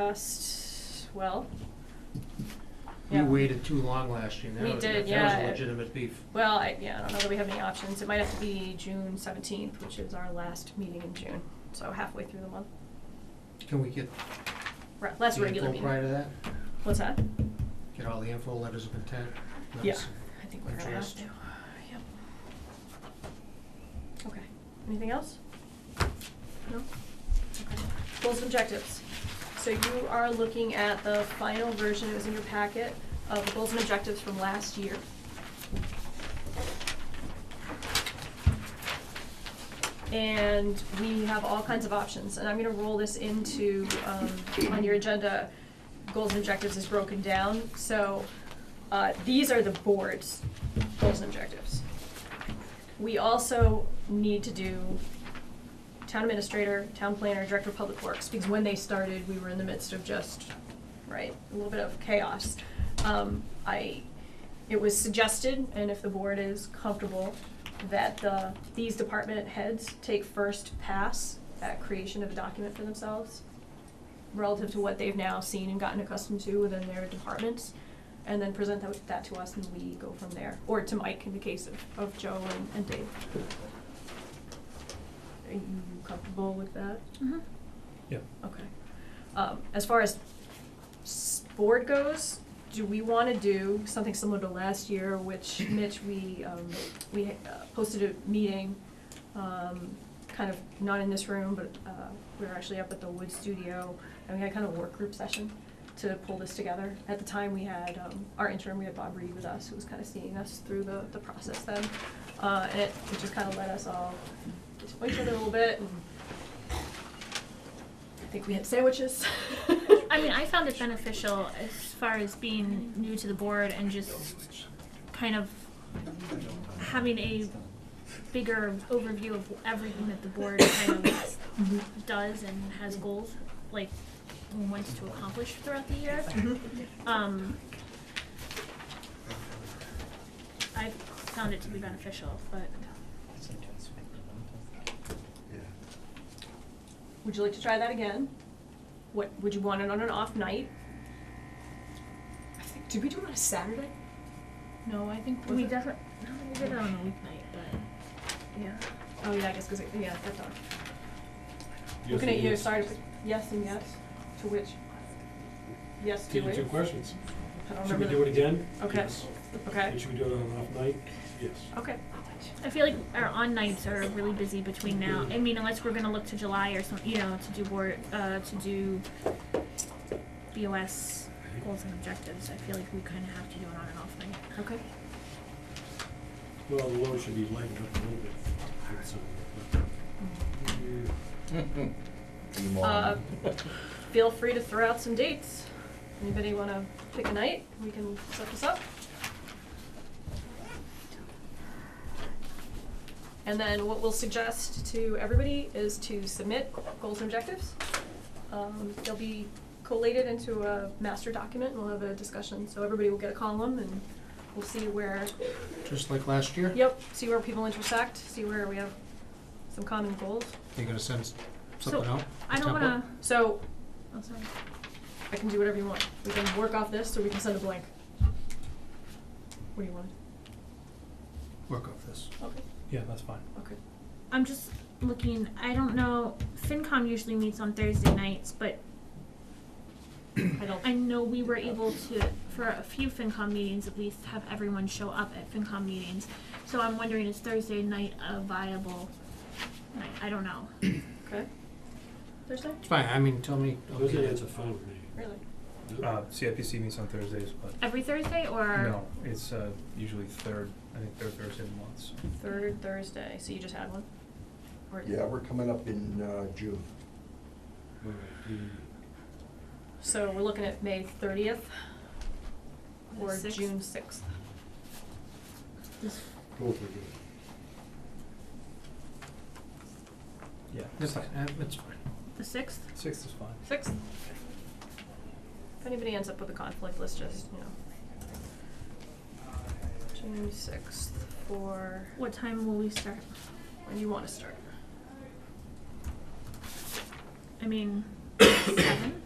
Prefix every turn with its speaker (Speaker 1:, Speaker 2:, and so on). Speaker 1: last, well,
Speaker 2: We
Speaker 1: yeah.
Speaker 2: waited too long last year. That
Speaker 1: We
Speaker 2: was-
Speaker 1: did,
Speaker 2: That was
Speaker 1: yeah.
Speaker 2: a legitimate beef.
Speaker 1: Well, I, yeah, I don't know that we have any options. It might have to be June seventeenth, which is our last meeting in June, so halfway through the month.
Speaker 2: Can we get
Speaker 1: Re- Last
Speaker 2: the
Speaker 1: regular
Speaker 2: info prior
Speaker 1: meeting.
Speaker 2: to that?
Speaker 1: What's that?
Speaker 2: Get all the info, letters of intent?
Speaker 1: Yeah,
Speaker 2: notice.
Speaker 1: I think we're gonna have
Speaker 2: Addressed.
Speaker 1: to, yep. Okay, anything else? No? Okay. Goals and objectives. So you are looking at the final version, it was in your packet, of the goals and objectives from last year. And we have all kinds of options, and I'm gonna roll this into, um, on your agenda, goals and objectives is broken down, so, uh, these are the board's goals and objectives. We also need to do town administrator, town planner, director of public works, because when they started, we were in the midst of just, right, a little bit of chaos. Um, I, it was suggested, and if the board is comfortable, that the, these department heads take first pass at creation of a document for themselves relative to what they've now seen and gotten accustomed to within their departments, and then present that, that to us, and we go from there, or to Mike in the case of, of Joe and, and Dave. Are you comfortable with that?
Speaker 2: Yeah.
Speaker 1: Okay. Um, as far as s- board goes, do we wanna do something similar to last year, which Mitch, we, um, we uh, posted a meeting, um, kind of not in this room, but, uh, we were actually up at the Wood Studio, and we had kind of a work group session to pull this together. At the time, we had, um, our interim, we had Bob Reed with us, who was kind of seeing us through the, the process then. Uh, and it, it just kind of let us all get to know each other a little bit, and I think we had sandwiches.
Speaker 3: I mean, I found it beneficial as far as being new to the board and just kind of having a bigger overview of everything that the board kind of does and has goals, like wants to accomplish throughout the year. Um, I found it to be beneficial, but
Speaker 1: Would you like to try that again? What would you want it on an off night? I think did we do it on a Saturday? No, I think was
Speaker 3: we
Speaker 1: it-
Speaker 3: definitely we did it on a weeknight, but yeah.
Speaker 1: Oh yeah, I guess because yeah, that's on.
Speaker 4: Yes,
Speaker 1: Looking at
Speaker 4: it
Speaker 1: you,
Speaker 4: is.
Speaker 1: sorry, but yes and yes to which? Yes to
Speaker 4: Give you
Speaker 1: which?
Speaker 4: two questions.
Speaker 1: I don't
Speaker 4: Should we
Speaker 1: remember.
Speaker 4: do it again?
Speaker 1: Okay.
Speaker 4: Yes.
Speaker 1: Okay.
Speaker 4: And Should we do it on an off night? Yes.
Speaker 1: Okay.
Speaker 3: I feel like our on nights are really busy between now. I mean, unless we're gonna look to July or some, you know, to do board, uh, to do BOS goals and objectives. I feel like we kind of have to do an on and off night.
Speaker 1: Okay.
Speaker 4: Well, the load should be lightened up a little bit. It's, uh,
Speaker 1: Uh, feel free to throw out some dates. Anybody want to pick a night? We can set this up. And then what we'll suggest to everybody is to submit goals and objectives. Um, they'll be collated into a master document, and we'll have a discussion. So everybody will get a column, and we'll see where
Speaker 2: Just like last year?
Speaker 1: yep, see where people intersect, see where we have some common goals.
Speaker 2: You're gonna send s- something
Speaker 3: so
Speaker 2: out?
Speaker 3: I don't
Speaker 2: Template?
Speaker 3: wanna.
Speaker 1: So
Speaker 3: Oh, sorry.
Speaker 1: I can do whatever you want. We can work off this, or we can send a blank. What do you want?
Speaker 2: Work off this.
Speaker 1: Okay.
Speaker 5: Yeah, that's fine.
Speaker 1: Okay.
Speaker 3: I'm just looking. I don't know. FinCom usually meets on Thursday nights, but
Speaker 1: I don't.
Speaker 3: I know we were able to, for a few FinCom meetings at least, have everyone show up at FinCom meetings. So I'm wondering, is Thursday night a viable night? I don't know.
Speaker 1: Okay. Thursday?
Speaker 2: It's fine, I mean, tell me. I'll be
Speaker 4: Thursday
Speaker 2: there.
Speaker 4: night's a fun night.
Speaker 1: Really?
Speaker 5: Uh, CIPC meets on Thursdays, but
Speaker 3: Every Thursday or?
Speaker 5: no, it's uh, usually third, I think third Thursday of the month. So.
Speaker 1: Third Thursday. So you just had one? Or-
Speaker 6: Yeah, we're coming up in uh, June.
Speaker 4: All right, mm.
Speaker 1: So we're looking at May thirtieth
Speaker 3: The
Speaker 1: or
Speaker 3: sixth?
Speaker 1: June sixth.
Speaker 4: Both are good.
Speaker 5: Yeah,
Speaker 2: It's fine, uh, it's fine.
Speaker 3: The sixth?
Speaker 5: Sixth is fine.
Speaker 1: Sixth? If anybody ends up with a conflict, let's just, you know. June sixth for
Speaker 3: What time will we start?
Speaker 1: when you want to start.
Speaker 3: I mean, seven?